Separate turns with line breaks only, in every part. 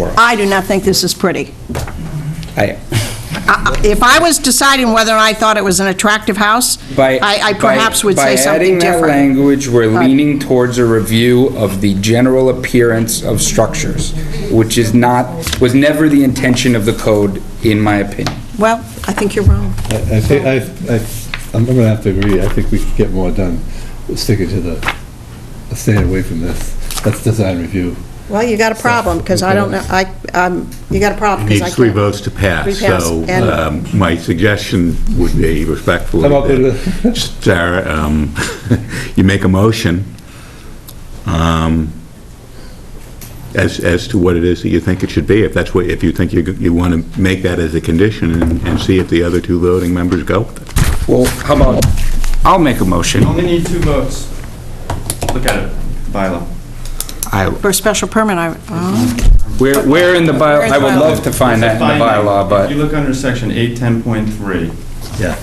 tomorrow.
I do not think this is pretty.
I-
I- I- If I was deciding whether I thought it was an attractive house,
By-
I I
by-
perhaps would say something
By adding that
different.
language, we're
But-
leaning towards a review of the general appearance of structures, which is not, was never the intention of the code, in my opinion.
Well, I think you're wrong.
I I think, I, I, I'm gonna have to agree, I think we could get more done sticking to the, staying away from this. That's design review.
Well, you got a problem, because I don't know, I, um, you got a problem, because I can't.
Needs three votes to pass,
Three pass,
so
and-
um, my suggestion would be respectfully,
Come up with
that Sarah, um, you make a motion um, as, as to what it is that you think it should be, if that's what, if you think you, you want to make that as a condition and and see if the other two voting members go with it.
Well, how about, I'll make a motion.
Only need two votes. Look at it, bylaw.
I-
For a special permit, I, oh.
Where, where in the
Where
bylaw,
in
I would
the bylaw?
love to find that in the bylaw,
If you
but
look under section 810.3,
Yeah.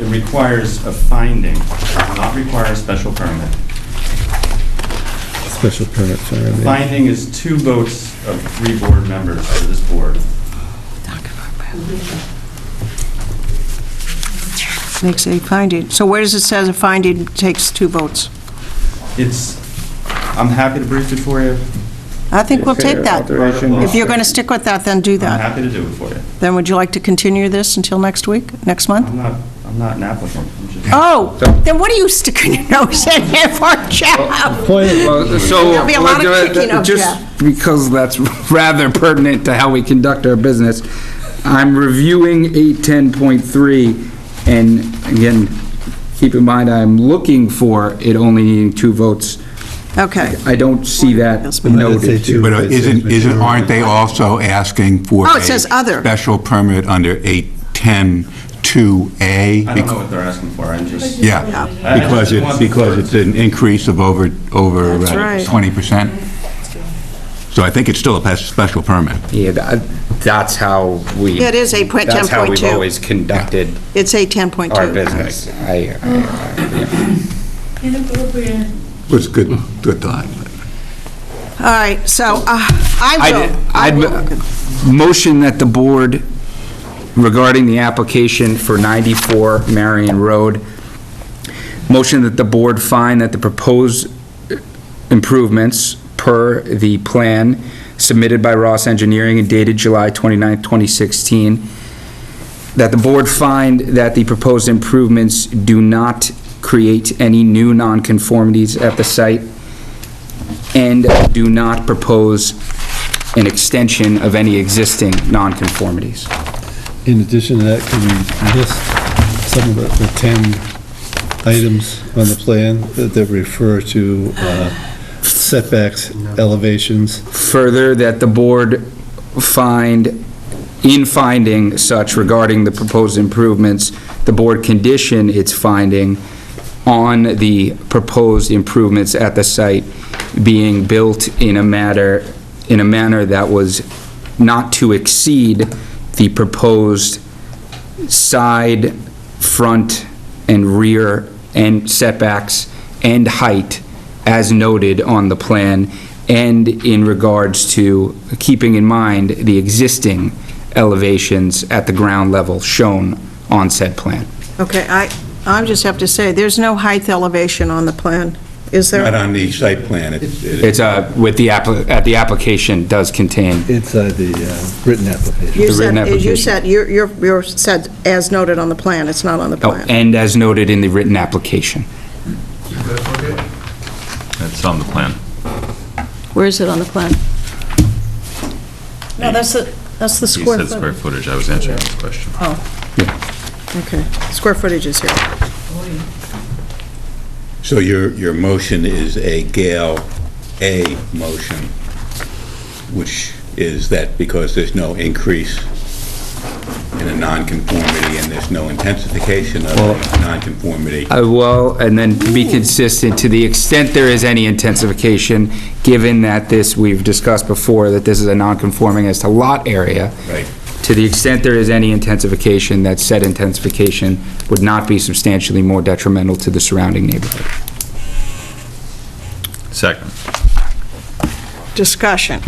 it requires a finding, does not require a special permit.
Special permit, sorry.
Finding is two votes of three board members for this board.
makes a finding. So where does it says a finding takes two votes?
It's, I'm happy to brief it for you.
I think we'll take that.
Alteration.
If you're going to stick with that, then do
I'm
Uh-huh.
that.
happy to do it for you.
Then would you like to continue this until next week, next month?
Uh-huh.
I'm not, I'm not an applicant. I'm just-
Oh, then what are you sticking your nose in here for, Jeff?
Well, so.
There'll be a lot of
we'll do it
kicking of
Just because that's rather pertinent to how we conduct our business, I'm reviewing eight ten point three, and again, keep in mind, I'm looking for it only needing two votes.
Okay.
I don't see that noted.
But uh, isn't, isn't, aren't they also asking for?
Oh, it
a
says other.
Special permit under 810-2A?
I don't know what they're asking for, I'm just.
Yeah,
I- I
because
just
it's,
want-
because it's an increase of over, over
That's right.
uh, 20%. So I think it's still a pes- special permit.
Yeah, that- that's how we.
It is 8.10.2.
That's how we've always conducted
It's a 10.2.
our business. I, I-
Inappropriate.
Was good, good thought.
All right, so uh, I
I'd-
will. I
I'd-
will.
Motion that the board regarding the application for 94 Marion Road, motion that the board find that the proposed improvements per the plan submitted by Ross Engineering and dated July 29, 2016, that the board find that the proposed improvements do not create any new nonconformities at the site and do not propose an extension of any existing nonconformities.
In addition to that, can we list some of the- the 10 items on the plan that that refer to uh, setbacks, elevations?
Further, that the board find, in finding such regarding the proposed improvements, the board condition its finding on the proposed improvements at the site being built in a matter, in a manner that was not to exceed the proposed side, front, and rear and setbacks and height as noted on the plan, and in regards to keeping in mind the existing elevations at the ground level shown on said plan.
Okay, I, I just have to say, there's no height elevation on the plan, is
Not
there?
on the site plan, it's,
It's, uh, with the appli, at the application does contain,
Inside the uh, written application.
You
the
said,
written
you
application.
said, you're, you're- you're said as noted on the plan, it's not on the
oh,
plan.
and as noted in the written application.
That's on the plan.
Where is it on the plan? No, that's the, that's the
He
square
said
foot.
square footage, I was answering his question.
Okay, square footage is here.
so your, your motion is a Gale A motion, which is that because there's no increase in a nonconformity and there's no intensification of a nonconformity.
Uh, Well, and then be consistent, to the extent there is any intensification, given that this, we've discussed before, that this is a non-conforming as to lot area.
Right.
To the extent there is any intensification, that said intensification would not be substantially more detrimental to the surrounding neighborhood.
Second.
Discussion.